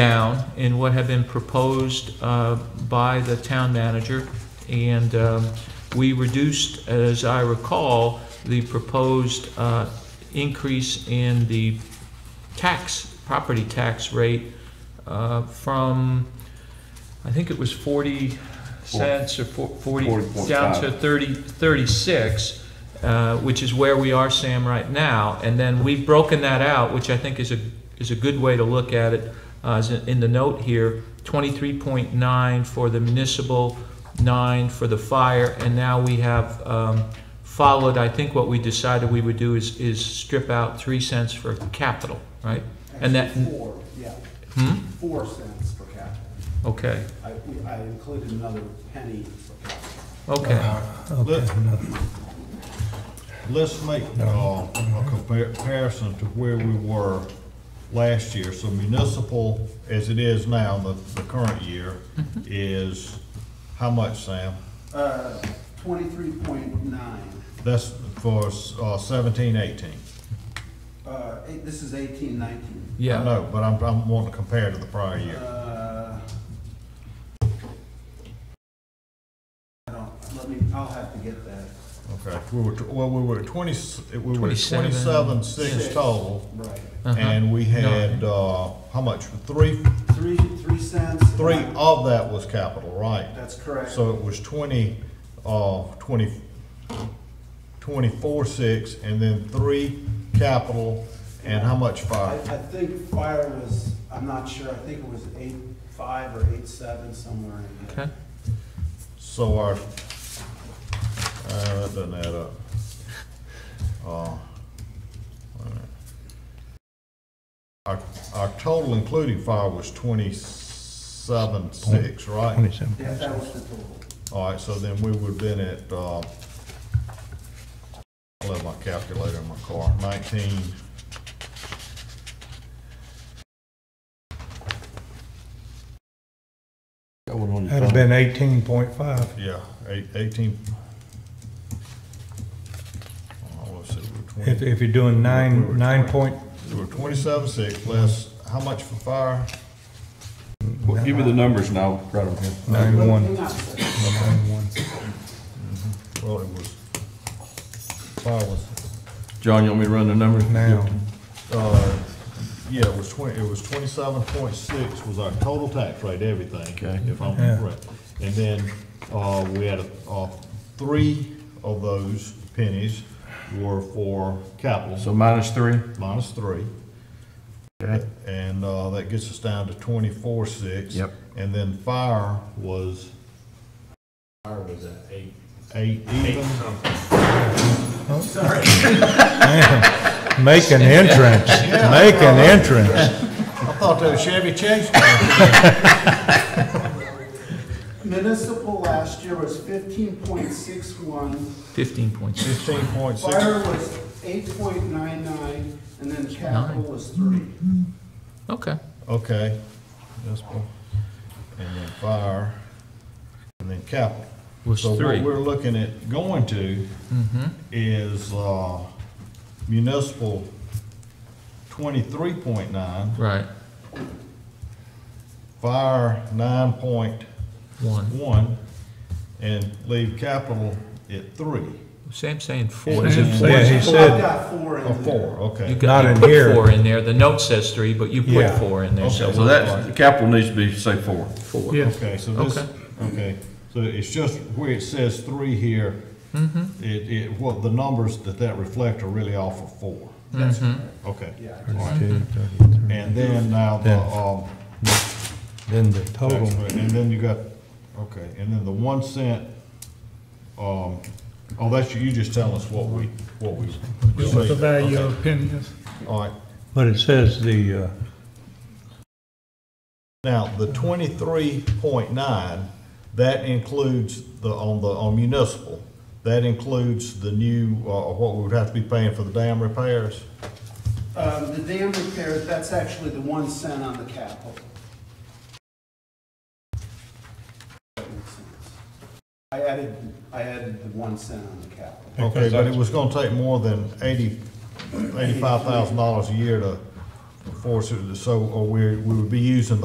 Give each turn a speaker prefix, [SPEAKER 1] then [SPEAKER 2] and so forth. [SPEAKER 1] down in what have been proposed uh, by the town manager. And um, we reduced, as I recall, the proposed uh, increase in the tax, property tax rate uh, from, I think it was 40 cents or four- 40,
[SPEAKER 2] Forty point
[SPEAKER 1] down
[SPEAKER 2] five.
[SPEAKER 1] to 30, 36, uh, which is where we are, Sam, right now. And then we've broken that out, which I think is a, is a good way to look at it, uh, is in the note here, 23.9 for the municipal, 9 for the fire, and now we have um, followed, I think what we decided we would do is, is strip out 3 cents for capital, right? And that-
[SPEAKER 3] Actually, Four, yeah,
[SPEAKER 1] Hmm,
[SPEAKER 3] four cents per capita.
[SPEAKER 1] okay,
[SPEAKER 3] I, we- I included another penny per capita.
[SPEAKER 1] okay.
[SPEAKER 4] Let's, let's make, uh, a compar- comparison to where we were last year. So municipal, as it is now, the, the current year, is how much, Sam?
[SPEAKER 3] Uh, twenty-three point nine,
[SPEAKER 4] That's for, uh, seventeen, eighteen.
[SPEAKER 3] uh, eight- this is eighteen, nineteen.
[SPEAKER 4] I
[SPEAKER 1] Yeah,
[SPEAKER 4] know, but I'm, I'm wanting to compare to the prior year.
[SPEAKER 3] Uh, I don't, let me, I'll have to get that.
[SPEAKER 4] Okay, we were, tw- well, we were at twenty, we were at
[SPEAKER 1] 27.
[SPEAKER 4] twenty-seven, six
[SPEAKER 3] Six.
[SPEAKER 4] total.
[SPEAKER 3] Right.
[SPEAKER 1] uh-huh,
[SPEAKER 4] And we had, uh, how much? Three,
[SPEAKER 3] Three, three cents.
[SPEAKER 4] three of that was capital, right?
[SPEAKER 3] That's correct.
[SPEAKER 4] So it was twenty, uh, twenty, twenty-four, six, and then three capital, and how much
[SPEAKER 3] I,
[SPEAKER 4] fire?
[SPEAKER 3] I think fire was, I'm not sure, I think it was eight, five or eight, seven, somewhere in there.
[SPEAKER 1] okay.
[SPEAKER 4] So our, uh, that doesn't add up. Uh, all right. Our, our total including fire was twenty-seven, six, right?
[SPEAKER 5] Twenty-seven.
[SPEAKER 3] Yeah, that was the total.
[SPEAKER 4] All right, so then we would've been at, uh, I left my calculator in my car, nineteen.
[SPEAKER 5] That'd have been eighteen point five.
[SPEAKER 4] Yeah, eight, eighteen. Oh, let's see, we're
[SPEAKER 5] If,
[SPEAKER 4] twenty,
[SPEAKER 5] if you're doing nine, nine point,
[SPEAKER 4] we're twenty-seven six, less, how much for fire?
[SPEAKER 2] Well, Give me the numbers and I'll write them here.
[SPEAKER 5] nine one,
[SPEAKER 3] Hang on a second.
[SPEAKER 5] nine one.
[SPEAKER 4] Well, it was, fire was,
[SPEAKER 2] John, you want me to run the numbers?
[SPEAKER 5] Now,
[SPEAKER 4] uh, yeah, it was twenty, it was twenty-seven point six was our total tax rate, everything.
[SPEAKER 2] Okay.
[SPEAKER 4] If I'm
[SPEAKER 5] Yeah.
[SPEAKER 4] correct. And then, uh, we had, uh, three of those pennies were for capital.
[SPEAKER 2] So minus three?
[SPEAKER 4] minus three.
[SPEAKER 2] Okay.
[SPEAKER 4] And, uh, that gets us down to twenty-four, six.
[SPEAKER 2] Yep.
[SPEAKER 4] And then fire was
[SPEAKER 6] Fire was at eight.
[SPEAKER 4] eight even.
[SPEAKER 5] man, make an entrance, make an entrance.
[SPEAKER 4] I thought that was Chevy Chase.
[SPEAKER 3] Municipal last year was fifteen point six one,
[SPEAKER 1] 15.6,
[SPEAKER 4] Fifteen point six.
[SPEAKER 3] fire was eight point nine nine, and then capital was three.
[SPEAKER 1] okay.
[SPEAKER 4] Okay. That's one. And then fire, and then capital.
[SPEAKER 1] Was
[SPEAKER 4] So
[SPEAKER 1] three.
[SPEAKER 4] what we're looking at going to Mm-hmm. is, uh, municipal twenty-three point nine,
[SPEAKER 1] Right,
[SPEAKER 4] fire nine point
[SPEAKER 1] one.
[SPEAKER 4] one, and leave capital at three,
[SPEAKER 1] Sam's saying four.
[SPEAKER 5] Sam
[SPEAKER 1] Is it
[SPEAKER 5] said he
[SPEAKER 1] four?
[SPEAKER 3] Well, I've
[SPEAKER 5] said,
[SPEAKER 3] got four in
[SPEAKER 4] or
[SPEAKER 3] there.
[SPEAKER 4] Oh, four,
[SPEAKER 1] You
[SPEAKER 4] okay.
[SPEAKER 1] got,
[SPEAKER 5] Not
[SPEAKER 1] you
[SPEAKER 5] in
[SPEAKER 1] put
[SPEAKER 5] here.
[SPEAKER 1] four in there. The note says three, but you put
[SPEAKER 5] Yeah.
[SPEAKER 1] four in there, so
[SPEAKER 4] Okay.
[SPEAKER 2] So that's, the capital needs to be, say, four.
[SPEAKER 1] four.
[SPEAKER 5] yeah,
[SPEAKER 4] Okay, so this,
[SPEAKER 1] Okay.
[SPEAKER 4] okay, so it's just where it says three here,
[SPEAKER 7] Mm-hmm.
[SPEAKER 4] it, it, what, the numbers that that reflect are really all for four.
[SPEAKER 3] That's
[SPEAKER 1] Mm-hmm.
[SPEAKER 3] correct.
[SPEAKER 4] Okay,
[SPEAKER 3] Yeah, I just-
[SPEAKER 5] Thirty-two, thirty-three.
[SPEAKER 4] and then now the, um,
[SPEAKER 5] Then the
[SPEAKER 4] tax
[SPEAKER 5] total,
[SPEAKER 4] rate, and then you got, okay, and then the one cent, um, oh, that's, you just telling us what we, what we.
[SPEAKER 7] What the value
[SPEAKER 4] Okay.
[SPEAKER 7] of opinions.
[SPEAKER 4] All right,
[SPEAKER 5] but it says the, uh,
[SPEAKER 4] Now, the twenty-three point nine, that includes the, on the, on municipal, that includes the new, uh, what we would have to be paying for the dam repairs?
[SPEAKER 3] Um, the dam repairs, that's actually the one cent on the capital. That makes sense. I added, I added the one cent on the capital.
[SPEAKER 4] Okay, but it was gonna take more than eighty, eighty-five thousand dollars a year to force it, to- so, or uh, we, we would be using